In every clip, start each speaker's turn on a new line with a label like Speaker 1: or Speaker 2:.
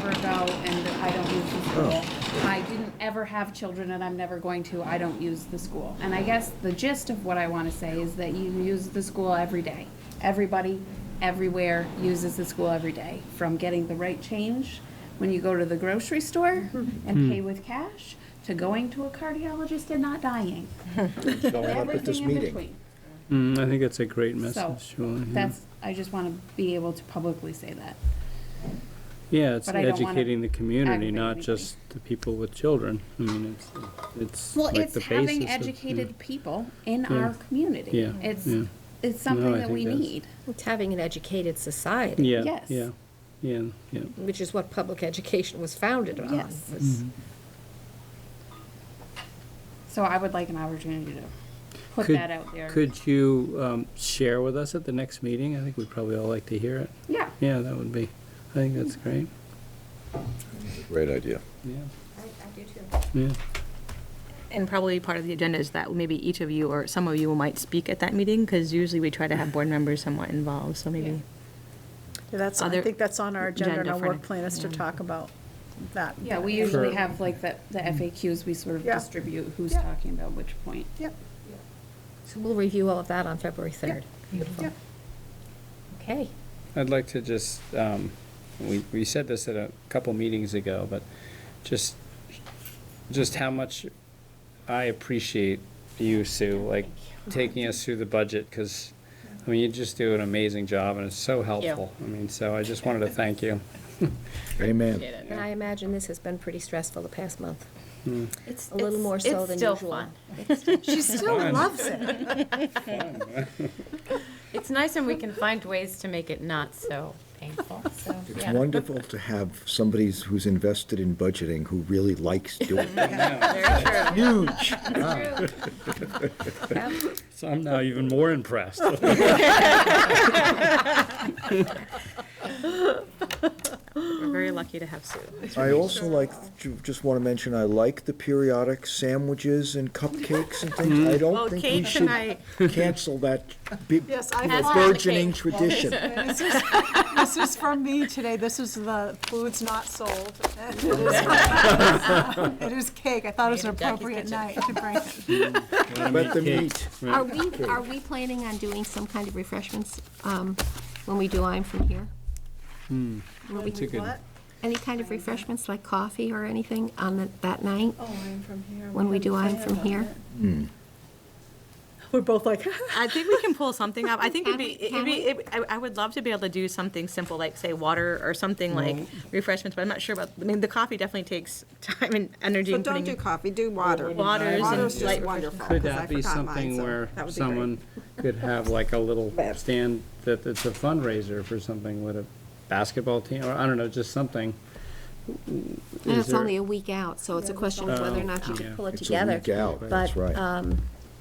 Speaker 1: and I don't use the school.
Speaker 2: Oh.
Speaker 1: I didn't ever have children and I'm never going to, I don't use the school. And I guess the gist of what I want to say is that you use the school every day. Everybody, everywhere uses the school every day, from getting the right change when you go to the grocery store and pay with cash, to going to a cardiologist and not dying.
Speaker 2: showing up at this
Speaker 1: Everything in
Speaker 2: meeting.
Speaker 1: between.
Speaker 3: Mm, I think it's a great
Speaker 1: So,
Speaker 3: message, Julie, yeah.
Speaker 1: that's, I just want to be able to publicly say that.
Speaker 3: Yeah, it's
Speaker 1: but I don't wanna
Speaker 3: educating the community,
Speaker 1: aggravate
Speaker 3: not
Speaker 1: anybody.
Speaker 3: just the people with children. I mean, it's, it's
Speaker 1: Well,
Speaker 3: like
Speaker 1: it's
Speaker 3: the basis of.
Speaker 1: having
Speaker 3: yeah.
Speaker 1: educated people in
Speaker 3: Yeah.
Speaker 1: our community.
Speaker 3: Yeah,
Speaker 1: It's,
Speaker 3: yeah.
Speaker 1: it's something
Speaker 3: No, I
Speaker 1: that we
Speaker 3: think that's-
Speaker 1: need.
Speaker 4: It's having an educated society,
Speaker 3: Yeah,
Speaker 1: yes.
Speaker 3: yeah, yeah, yeah.
Speaker 4: which is what public education was founded on.
Speaker 1: Yes.
Speaker 4: was-
Speaker 1: So I would like an opportunity to put
Speaker 3: Could-
Speaker 1: that out there.
Speaker 3: Could you um, share with us at the next meeting? I think we'd probably all like to hear it.
Speaker 1: Yeah,
Speaker 3: Yeah, that would be, I think
Speaker 1: Mm.
Speaker 3: that's great,
Speaker 2: Great idea.
Speaker 3: yeah,
Speaker 4: I do too.
Speaker 3: yeah.
Speaker 5: And probably part of the agenda is that maybe each of you or some of you might speak at that meeting, because usually we try to have board members somewhat involved, so maybe.
Speaker 6: Yeah, That's, I
Speaker 5: Other
Speaker 6: think that's on our agenda and
Speaker 5: agenda
Speaker 6: our
Speaker 5: for
Speaker 6: work
Speaker 5: next-
Speaker 6: plan is to
Speaker 5: yeah.
Speaker 6: talk about that.
Speaker 1: yeah, we
Speaker 3: Sure.
Speaker 1: usually have like the, the
Speaker 3: Mm-hmm.
Speaker 1: FAQs, we sort of
Speaker 6: Yeah.
Speaker 1: distribute who's
Speaker 6: Yeah.
Speaker 1: talking about which point.
Speaker 6: Yep,
Speaker 4: So we'll review all of that on February 3rd. Beautiful.
Speaker 6: yep.
Speaker 4: Okay.
Speaker 3: I'd like to just, um, we, we said this at a couple meetings ago, but just, just how much I appreciate you, Sue, like, taking us through the budget, because, I mean, you just do an amazing job, and it's so helpful. I mean, so I just wanted to thank you.
Speaker 2: Amen.
Speaker 4: And I imagine this has been pretty stressful the past month,
Speaker 7: It's
Speaker 4: a little
Speaker 7: it's-
Speaker 4: more so than usual.
Speaker 7: It's still fun.
Speaker 6: She still
Speaker 3: Fine.
Speaker 6: loves it.
Speaker 7: It's nice and we can find ways to make it not so painful, so,
Speaker 2: It's
Speaker 7: yeah.
Speaker 2: wonderful to have somebody who's invested in budgeting who really likes doing it.
Speaker 7: Very true.
Speaker 2: Huge.
Speaker 3: So I'm now even more impressed.
Speaker 5: We're very lucky to have Sue.
Speaker 2: I also like, ju- just want to mention, I like the periodic sandwiches and cupcakes and things. I don't think we should cancel that big
Speaker 6: Yes, I
Speaker 7: That's on
Speaker 6: thought-
Speaker 7: the
Speaker 2: burgeoning
Speaker 7: cake.
Speaker 2: tradition.
Speaker 6: This is- this is from me today. This is the foods not sold. It is- it is cake. I thought it was an
Speaker 7: Made in Jackie's
Speaker 6: appropriate
Speaker 7: kitchen.
Speaker 6: night to bring it.
Speaker 2: Let them eat.
Speaker 3: Yeah.
Speaker 4: Are we, are we planning on doing some kind of refreshments um, when we do I'm From Here?
Speaker 3: That's a good,
Speaker 4: Any kind of refreshments, like coffee or anything on the- that night? Oh, I'm From Here. When we do I'm From Here?
Speaker 6: We're both like,
Speaker 5: I think we can pull something up. I think it'd be,
Speaker 4: Can
Speaker 5: it'd
Speaker 4: we-
Speaker 5: be, it- I I would love to be able to do something simple, like say water or something like refreshments, but I'm not sure about, I mean, the coffee definitely takes time and energy.
Speaker 8: So
Speaker 5: and
Speaker 8: don't
Speaker 5: putting
Speaker 8: do
Speaker 5: in-
Speaker 8: coffee, do water.
Speaker 5: Waters and
Speaker 8: Water's
Speaker 5: light
Speaker 8: just wonderful.
Speaker 3: could
Speaker 8: 'cause I
Speaker 3: that be
Speaker 8: forgot mine,
Speaker 3: something
Speaker 8: so
Speaker 3: where
Speaker 8: that would be great.
Speaker 3: someone could have like a little stand that it's a fundraiser for something with a basketball team, or I don't know, just something?
Speaker 4: And
Speaker 3: Is
Speaker 4: it's
Speaker 3: there-
Speaker 4: only a week out, so it's a question of whether or not you
Speaker 3: Yeah.
Speaker 4: could pull it
Speaker 2: It's a
Speaker 4: together.
Speaker 2: week out, that's right.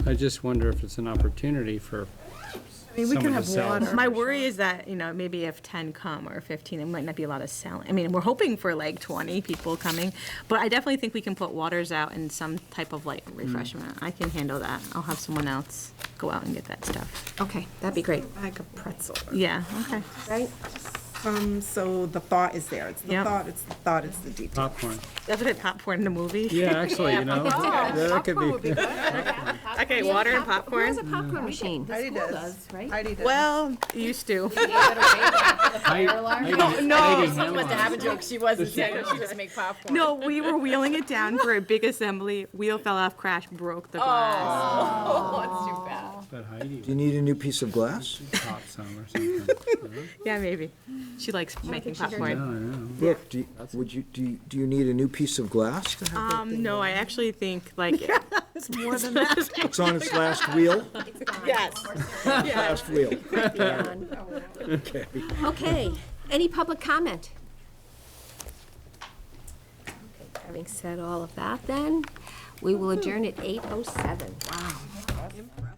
Speaker 3: I just wonder if it's an opportunity for
Speaker 6: I mean, we
Speaker 3: someone
Speaker 6: can
Speaker 3: to
Speaker 6: have
Speaker 3: sell.
Speaker 6: water.
Speaker 5: My worry is that, you know, maybe if 10 come or 15, it might not be a lot of selling. I mean, we're hoping for like 20 people coming, but I definitely think we can put waters out and some type of like refreshment. I can handle that. I'll have someone else go out and get that stuff.
Speaker 4: Okay, that'd be great,
Speaker 8: Like a pretzel.
Speaker 5: Yeah, okay.
Speaker 4: right?
Speaker 8: Um, so the thought is there. It's the
Speaker 5: Yep.
Speaker 8: thought, it's the thought, it's the detail.
Speaker 3: popcorn.
Speaker 5: That's a bit popcorn in the movie.
Speaker 3: Yeah, actually, you
Speaker 7: Oh,
Speaker 3: know, that could be,
Speaker 5: Okay, water and popcorn.
Speaker 4: There's a popcorn machine.
Speaker 8: Heidi does.
Speaker 1: Does, right?
Speaker 8: Heidi does.
Speaker 5: Well, used to.
Speaker 7: Oh, No, she must have a joke, she wasn't saying, she just make popcorn.
Speaker 5: No, we were wheeling it down for a big assembly. Wheel fell off, crash, broke the glass.
Speaker 7: Oh, it's too bad.
Speaker 3: but Heidi
Speaker 2: Do you
Speaker 3: would
Speaker 2: need a new piece of glass?
Speaker 3: pop some or something.
Speaker 5: Yeah, maybe. She likes making popcorn.
Speaker 2: Brooke, do you, would you, do you, do you need a new piece of glass? to have that
Speaker 5: Um,
Speaker 2: thing
Speaker 5: no, I actually think like. It's more than that.
Speaker 2: It's on its last wheel,
Speaker 5: Yes.
Speaker 2: last wheel.
Speaker 4: Okay, any public comment? Okay, oh Having said all of that, then, we will adjourn at 8:07. Wow.